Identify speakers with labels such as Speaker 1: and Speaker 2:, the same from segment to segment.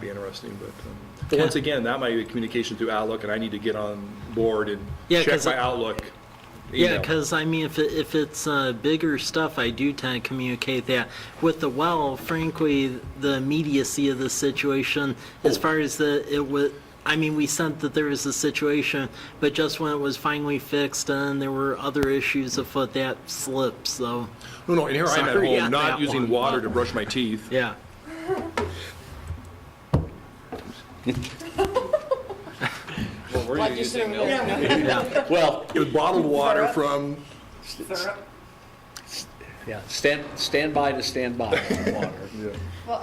Speaker 1: be interesting, but, um, but once again, that might be communication through Outlook, and I need to get on board and
Speaker 2: Yeah,
Speaker 1: check
Speaker 2: 'cause
Speaker 1: my
Speaker 2: it-
Speaker 1: Outlook.
Speaker 2: Yeah,
Speaker 1: email.
Speaker 2: because I mean, if, it- if it's uh, bigger stuff, I do tend to communicate that. With the well, frankly, the immediacy of the situation, as far as the, it was, I mean, we sent that there was a situation, but just when it was finally fixed and there were other issues afoot, that slipped, so,
Speaker 1: No, no, and here I'm at
Speaker 2: Sorry, yeah,
Speaker 1: home, not
Speaker 2: that
Speaker 1: using
Speaker 2: one.
Speaker 1: water to brush my teeth.
Speaker 2: yeah.
Speaker 3: Well, we're
Speaker 4: Like you
Speaker 3: using
Speaker 4: said,
Speaker 3: milk.
Speaker 5: Well,
Speaker 1: It was bottled water from,
Speaker 5: yeah, stand, stand by to stand by on the water.
Speaker 6: Well,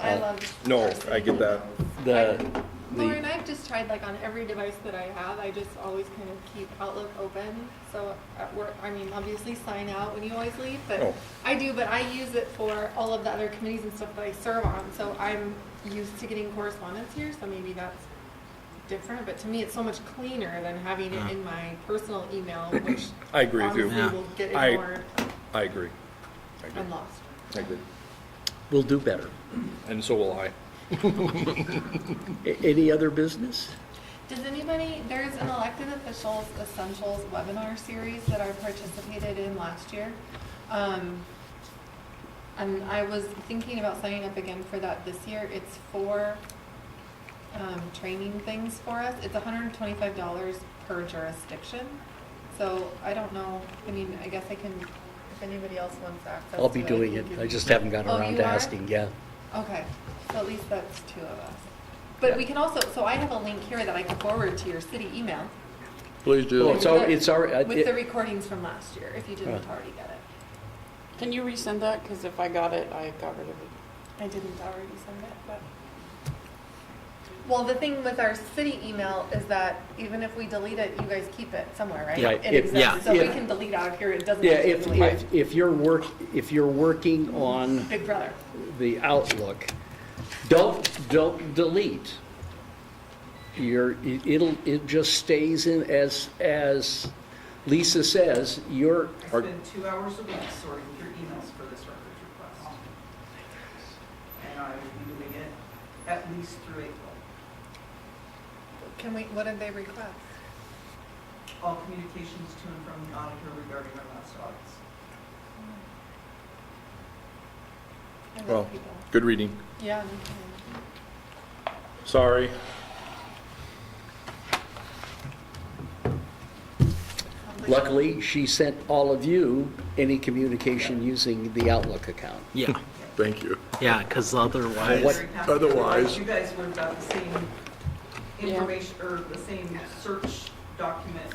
Speaker 1: Oh.
Speaker 6: I love.
Speaker 1: no, I get that.
Speaker 5: The,
Speaker 6: Lauren,
Speaker 5: the,
Speaker 6: I've just tried like on every device that I have, I just always kind of keep Outlook open. So at work, I mean, obviously sign out when you always leave,
Speaker 1: Oh.
Speaker 6: but I do, but I use it for all of the other committees and stuff that I serve on. So I'm used to getting correspondence here, so maybe that's different. But to me, it's so much cleaner than having it in my personal email, which
Speaker 1: I agree with you.
Speaker 6: obviously
Speaker 2: Yeah.
Speaker 6: will get
Speaker 1: I-
Speaker 6: ignored
Speaker 1: I agree. I agree.
Speaker 6: and lost.
Speaker 1: I agree.
Speaker 5: we'll do better.
Speaker 1: And so will I.
Speaker 5: A- Any other business?
Speaker 6: Does anybody, there's an elected officials essentials webinar series that I participated in last year. Um, And I was thinking about signing up again for that this year. It's for um, training things for us. It's $125 per jurisdiction. So I don't know, I mean, I guess I can, if anybody else wants access.
Speaker 5: I'll be
Speaker 6: to
Speaker 5: doing it.
Speaker 6: I can give
Speaker 5: I
Speaker 6: you-
Speaker 5: just haven't gotten
Speaker 6: Oh,
Speaker 5: around
Speaker 6: you
Speaker 5: to
Speaker 6: are?
Speaker 5: asking, yeah.
Speaker 6: Okay, so at least that's two of us. But we can also, so I have a link here that I can forward to your city email.
Speaker 5: Please do. Oh, It's, al- it's already,
Speaker 6: With the
Speaker 5: it-
Speaker 6: recordings from last year, if you didn't
Speaker 5: Right.
Speaker 6: already get it.
Speaker 4: Can you resend that? Because if I got it, I got rid of it.
Speaker 6: I didn't already send it, but. Well, the thing with our city email is that even if we delete it, you guys keep it somewhere, right?
Speaker 5: Yeah.
Speaker 6: It
Speaker 5: If-
Speaker 2: yeah.
Speaker 6: exists, so we
Speaker 5: If-
Speaker 6: can delete out of here, it doesn't.
Speaker 5: yeah,
Speaker 6: have to
Speaker 5: if,
Speaker 6: delete.
Speaker 5: if, if you're work, if you're working on
Speaker 6: Big brother.
Speaker 5: the Outlook, don't, don't delete. Your, it'll, it just stays in as, as Lisa says, your,
Speaker 7: I spend two hours a week sorting through emails for this records request. And I will be doing it at least through April.
Speaker 6: Can we, what did they request?
Speaker 7: All communications to and from the auditor regarding our last audits.
Speaker 6: I love
Speaker 1: Well,
Speaker 6: people.
Speaker 1: good reading.
Speaker 6: Yeah. me too.
Speaker 1: Sorry.
Speaker 5: luckily, she sent all of you any communication using the Outlook account.
Speaker 2: Yeah,
Speaker 1: Thank you.
Speaker 2: yeah, because
Speaker 7: I'm
Speaker 2: otherwise.
Speaker 5: What-
Speaker 7: very happy.
Speaker 1: otherwise-
Speaker 7: You guys would have got the same
Speaker 4: Yeah.
Speaker 7: information, or the same search document.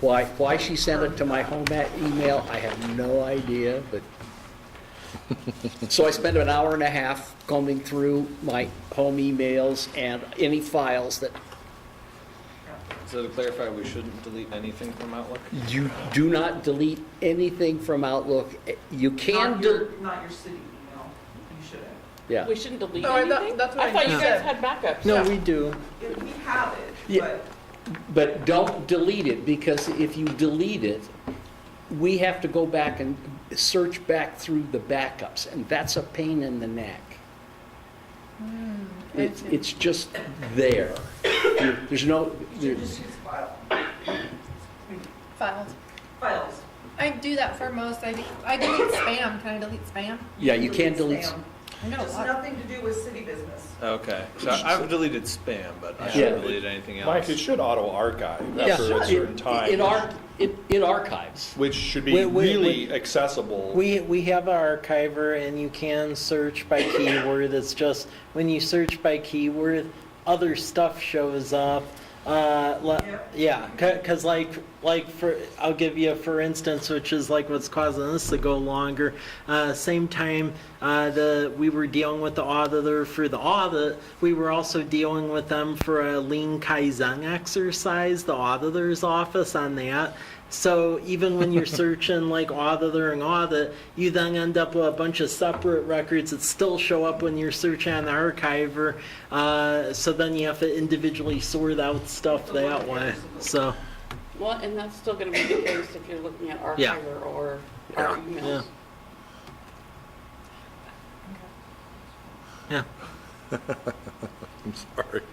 Speaker 5: Why, why she sent it to my home at email, I have no idea, but. So I spent an hour and a half combing through my home emails and any files that
Speaker 3: So to clarify, we shouldn't delete anything from Outlook?
Speaker 5: you do not delete anything from Outlook. You can,
Speaker 7: Not your,
Speaker 5: del-
Speaker 7: not your city email, you should have.
Speaker 5: yeah.
Speaker 4: We shouldn't delete
Speaker 7: Oh, I thought-
Speaker 4: anything?
Speaker 7: that's what
Speaker 4: I thought
Speaker 7: I
Speaker 4: you guys
Speaker 7: said.
Speaker 4: had backups.
Speaker 5: No, we do,
Speaker 7: If We have it,
Speaker 5: Yeah.
Speaker 7: but
Speaker 5: but don't delete it because if you delete it, we have to go back and search back through the backups and that's a pain in the neck. It's, it's just there. There- There's no, there-
Speaker 7: you should just use file,
Speaker 6: Files.
Speaker 7: files.
Speaker 6: I do that for most. I, do- I delete spam. Can I delete spam?
Speaker 5: yeah, you can't delete.
Speaker 7: spam.
Speaker 6: I know a
Speaker 7: Just
Speaker 6: lot.
Speaker 7: nothing to do with city business.
Speaker 3: Okay, so I've deleted spam, but I
Speaker 5: Yeah.
Speaker 3: shouldn't delete anything
Speaker 1: Mike,
Speaker 3: else.
Speaker 1: it should auto-archive
Speaker 5: Yeah,
Speaker 1: after a
Speaker 5: it-
Speaker 1: certain
Speaker 5: It,
Speaker 1: time,
Speaker 5: ar- it, it archives.
Speaker 1: which should be
Speaker 2: Wait, wait,
Speaker 1: really accessible.
Speaker 2: We, we have our archiver and you can search by keyword. It's just when you search by keyword, other stuff shows up. Uh, le-
Speaker 7: Yep.
Speaker 2: yeah, because like like for I'll give you a for instance, which is like what's causing this to go longer. Uh, same time uh, the we were dealing with the auditor for the audit, we were also dealing with them for a lean kaizen exercise. The auditor's office on that. So even when you're searching like auditor and audit, you then end up with a bunch of separate records that still show up when you're searching on the archiver. Uh, so then you have to individually sort out stuff that way. So
Speaker 4: Well, and that's still going to be the case if you're looking at
Speaker 2: Yeah.
Speaker 4: Archiver or our
Speaker 2: Yeah.
Speaker 4: emails.
Speaker 2: yeah,
Speaker 1: I'm sorry.